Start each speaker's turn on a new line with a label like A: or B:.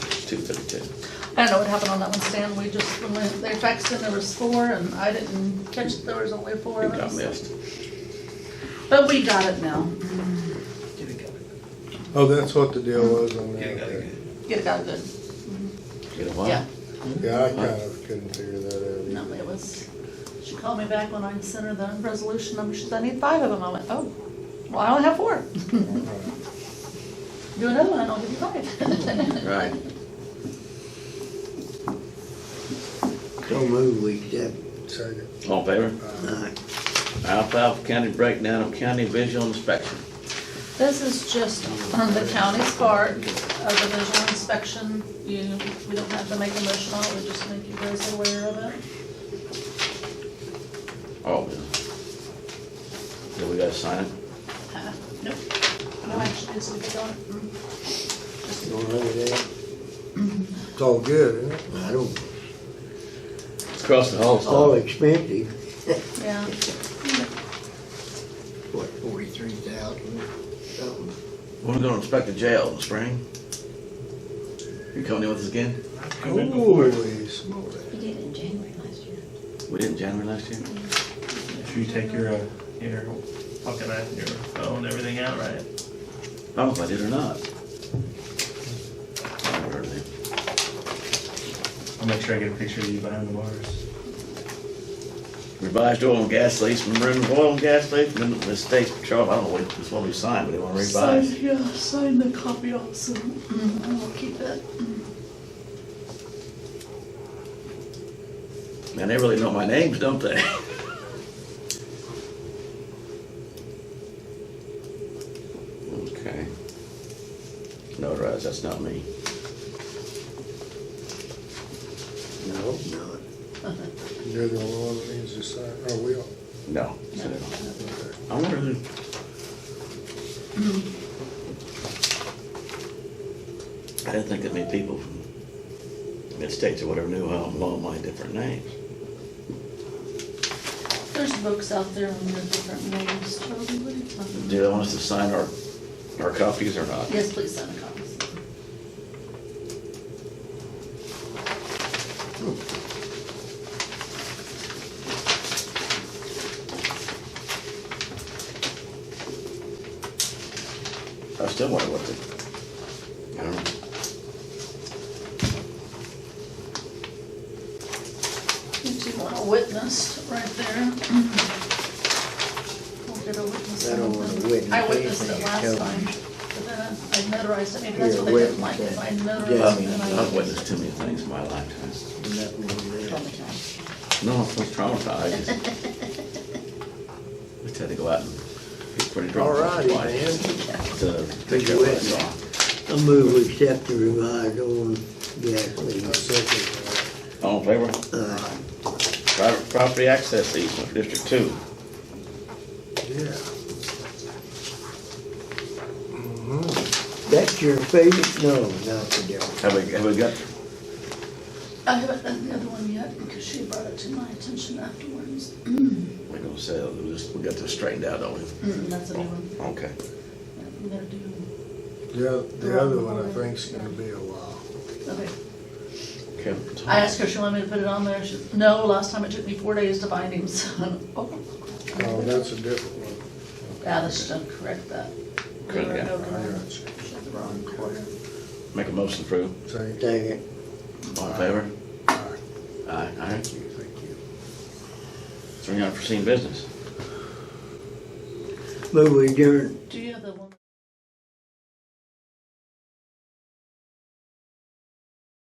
A: two thirty-two.
B: I don't know what happened on that one, Stan, we just, when we- they faxed in, there was four, and I didn't catch, there was only four
A: It
B: of
A: got
B: us.
A: missed.
B: But we got it now,
C: Oh, that's what the deal was on that. okay.
B: it got good,
A: You know why?
B: yeah,
C: Yeah, I kind of couldn't figure that out.
B: no, it was, she called me back when I sent her the resolution number, she said, I need five of them, I went, oh, well, I only have four. Do another one, and I'll give you five.
A: Right.
D: So move, we accept.
C: Second.
A: All in favor?
D: Aye.
A: Alfalfa County breakdown of county visual inspection.
B: This is just on the county's part of the visual inspection. You, we don't have to make a motion on it, we just make you guys aware of it.
A: Oh, yeah. Yeah, we gotta sign it.
B: Uh, Nope. No action is needed on it.
D: You wanna look at that?
B: Mm-hmm.
C: It's all good, isn't it?
D: I don't,
A: It's across the hall,
D: it's all
A: so.
D: expensive,
B: Yeah,
D: what, forty-three thousand something?
A: We're gonna inspect the jail in the spring. You coming in with us again?
C: Holy smokes.
E: You did it in January last year.
A: We did in January last year?
F: If you take your, uh, your pocket knife, your phone, everything out, right?
A: I don't know if I did or not. I don't remember then.
F: I'll make sure I get a picture of you behind the bars.
A: Revised oil and gas lease, remember the oil and gas lease, remember the state patrol, I don't know what, it's what we signed, but they wanna
B: sign,
A: revise.
B: yeah, sign the copy also. Mm, I will keep it.
A: Man, they really know my names, don't they? Okay. Notarize, that's not me.
D: No, not.
C: You're the only one that needs to sign, oh, we all.
A: No.
B: No, no,
A: I wonder who. I didn't think that many people from mid-states or whatever knew how all my different names.
B: There's books out there on the different names, Charlie, what are you talking about?
A: Do they want us to sign our, our copies or not?
B: Yes, please sign the copies.
A: I still wonder what the, I don't know.
B: You two want a witness right there. Mm-hmm. We'll get a witness.
D: I don't want a witness.
B: I witnessed it
D: Anything
B: last
D: tells
B: time,
D: me.
B: but then I I notarized it, maybe
D: You're
B: that's
D: a
B: what they didn't like,
D: witness,
B: if I
D: yeah.
B: notarized it. then I-
A: I've witnessed too many things in my lifetime.
D: Nothing on that.
E: Traumatized.
A: No, I'm so traumatized. I just- I just had to go out and get pretty drunk.
D: Alrighty,
A: man. To
D: Did
A: take care
D: you
A: of what I
D: witness?
A: saw.
D: I move, we accept the revised oil and gas
C: I
D: lease.
C: second that.
A: All in favor?
D: Uh,
A: Private property access easement for District Two.
C: Yeah. Mm-hmm.
D: That's your favorite? No, not the devil.
A: Have we, have we got,
B: I haven't done the other one yet, because she brought it to my attention afterwards.
A: we're gonna say, we just, we got this straightened out, don't we?
D: Mm-hmm.
B: Mm, That's a new one,
A: Okay.
B: I'm gonna do,
C: The, oth- the other one, I think's gonna be a while.
B: okay.
A: Okay.
B: I asked her if she wanted me to put it on there, she said, no, last time it took me four days to find him, so, oh.
C: Oh, that's a different one.
B: Yeah, this should correct that.
A: Correct, yeah.
B: Over and
C: I
B: over.
C: got you.
B: Should the wrong corner.
A: Make a motion to approve.
C: Thank you.
D: Second.
A: All in favor?
C: Aye.
A: Aye, aye.
C: Thank you, thank you.
A: Three unforeseen business.
D: Move, we adjourn.
B: Do